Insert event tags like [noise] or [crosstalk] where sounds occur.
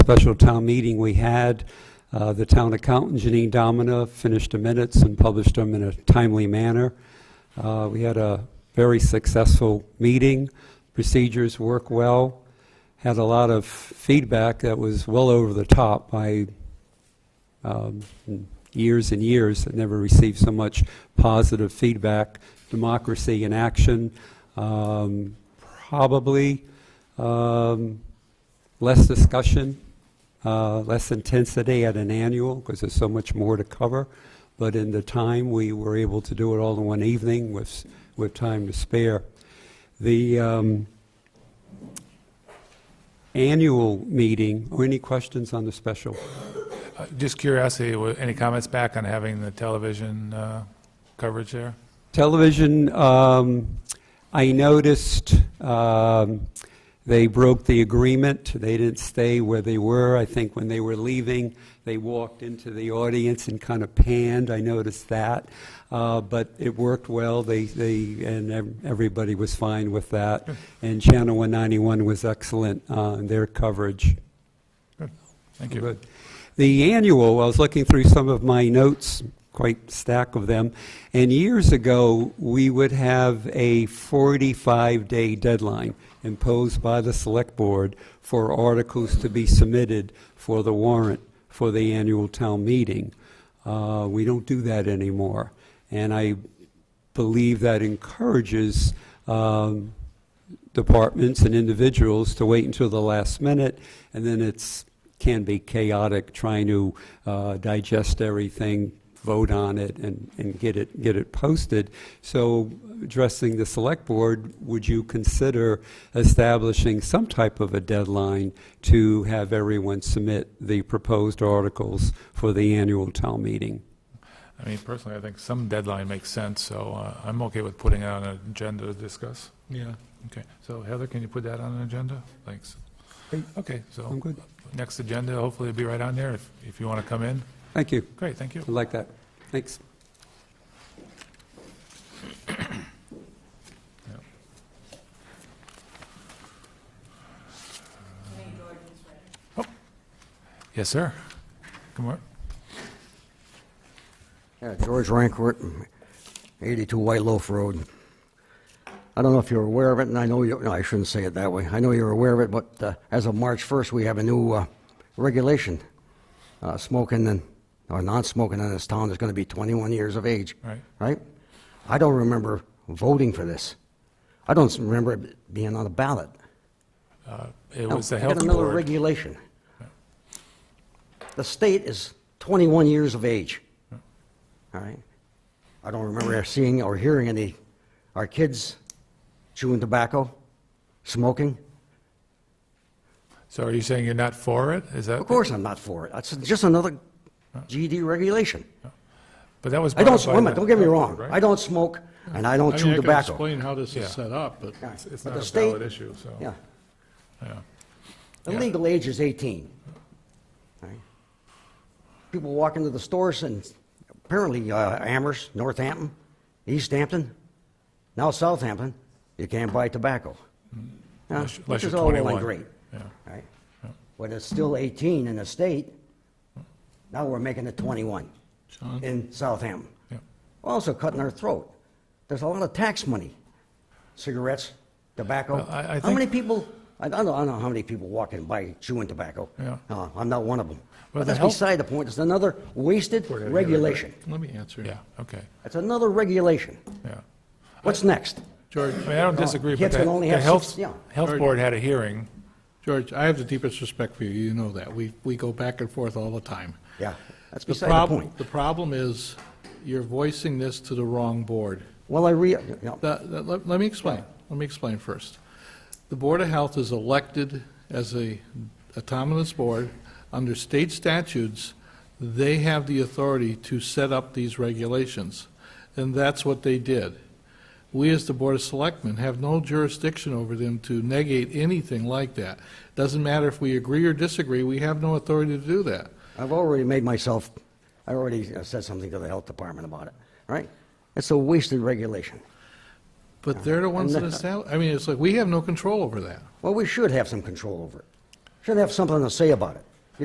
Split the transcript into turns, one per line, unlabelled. special town meeting we had, uh, the town accountant, Janine Domina, finished the minutes and published them in a timely manner. Uh, We had a very successful meeting. Procedures work well. Had a lot of feedback that was well over the top. I um, years and years, I never received so much positive feedback. Democracy in action, um, probably um, less discussion, uh, less intensity at an annual, because there's so much more to cover. But in the time, we were able to do it all in one evening with, with time to spare. The um, annual meeting, or any questions on the special?
Uh, Just curiosity, wa- any comments back on having the television uh, coverage there?
Television, um, I noticed um, they broke the agreement. They didn't stay where they were. I think when they were leaving, they walked into the audience and kind of panned. I noticed that. Uh, But it worked well. They, they, and ev- everybody was fine with that. And Channel 191 was excellent uh, in their coverage.
Thank you.
Good. The annual, I was looking through some of my notes, quite stack of them, and years ago, we would have a 45-day deadline imposed by the Select Board for articles to be submitted for the warrant for the annual town meeting. Uh, We don't do that anymore, and I believe that encourages um, departments and individuals to wait until the last minute, and then it's, can be chaotic trying to uh, digest everything, vote on it, and, and get it, get it posted. So addressing the select board, would you consider establishing some type of a deadline to have everyone submit the proposed articles for the annual town meeting?
I mean, personally, I think some deadline makes sense, so uh, I'm okay with putting it on an agenda to discuss.
Yeah.
Okay, so Heather, can you put that on an agenda? Thanks.
Great. Um,
Okay,
I'm
so
good.
next agenda, hopefully it'll be right on there if if you want to come in.
Thank you.
Great, thank you.
I like that. Thanks.
Yes, sir. Come on.
Yeah, George Rancourt, 82 White Loaf Road. I don't know if you're aware of it, and I know you, no, I shouldn't say it that way. I know you're aware of it, but uh, as of March 1st, we have a new uh, regulation. Uh, Smoking and, or non-smoking in this town is going to be 21 years of age.
Right.
Right? I don't remember voting for this. I don't remember it being on the ballot.
It was the
Oh, I
health
got another
board.
regulation. The state is 21 years of age. All right? I don't
[clears throat]
remember seeing or hearing any, our kids chewing tobacco, smoking.
So are you saying you're not for it? Is that?
Of course, I'm not for it. That's just another GD regulation.
But that was.
I
brought up
don't, wait
by
a minute,
the
don't get me
health
wrong.
board, Uh, right?
I don't smoke, and I don't
I
chew
mean, I can
tobacco.
explain how this
Yeah.
is set up, but
Yeah.
It's
But
not
the
a
state-
valid issue, so.
Yeah.
Yeah.
The
Yeah.
legal age is 18. Right? People walk into the stores and apparently uh, Amherst, Northampton, East Hampton, now Southampton, you can't buy tobacco. Now,
Mm-hmm. Unless- unless
Which is
you're
all well
21.
and great.
Yeah.
right? But it's still 18 in the state. Now we're making it 21 in Southampton.
Yeah.
We're Also cutting our throat. There's a lot of tax money. Cigarettes, tobacco.
Well, I- I
How
think-
many people, I don't know, I don't know how many people walk in by chewing tobacco.
Yeah.
Uh, I'm not one of them.
Well,
But
the
that's
health-
beside the point. It's another wasted regulation.
let me answer.
Yeah, okay,
It's another regulation.
yeah.
What's next?
George,
I mean, I don't disagree, but
Kids
the
can only
the
have
health,
six- yeah.
health board had a hearing.
George, I have the deepest respect for you, you know that. We, we go back and forth all the time.
Yeah, that's
The
beside the
prob-
point.
The problem is, you're voicing this to the wrong board.
Well, I re, you know,
The- the- Let let me explain. Let me explain first. The Board of Health is elected as a autonomous board. Under state statutes, they have the authority to set up these regulations, and that's what they did. We, as the Board of Selectmen, have no jurisdiction over them to negate anything like that. Doesn't matter if we agree or disagree, we have no authority to do that.
I've already made myself, I already uh, said something to the health department about it, right? It's a wasted regulation.
But they're the ones that
And-
establish, I mean, it's like, we have no control over that.
Well, we should have some control over it. Should have something to say about it.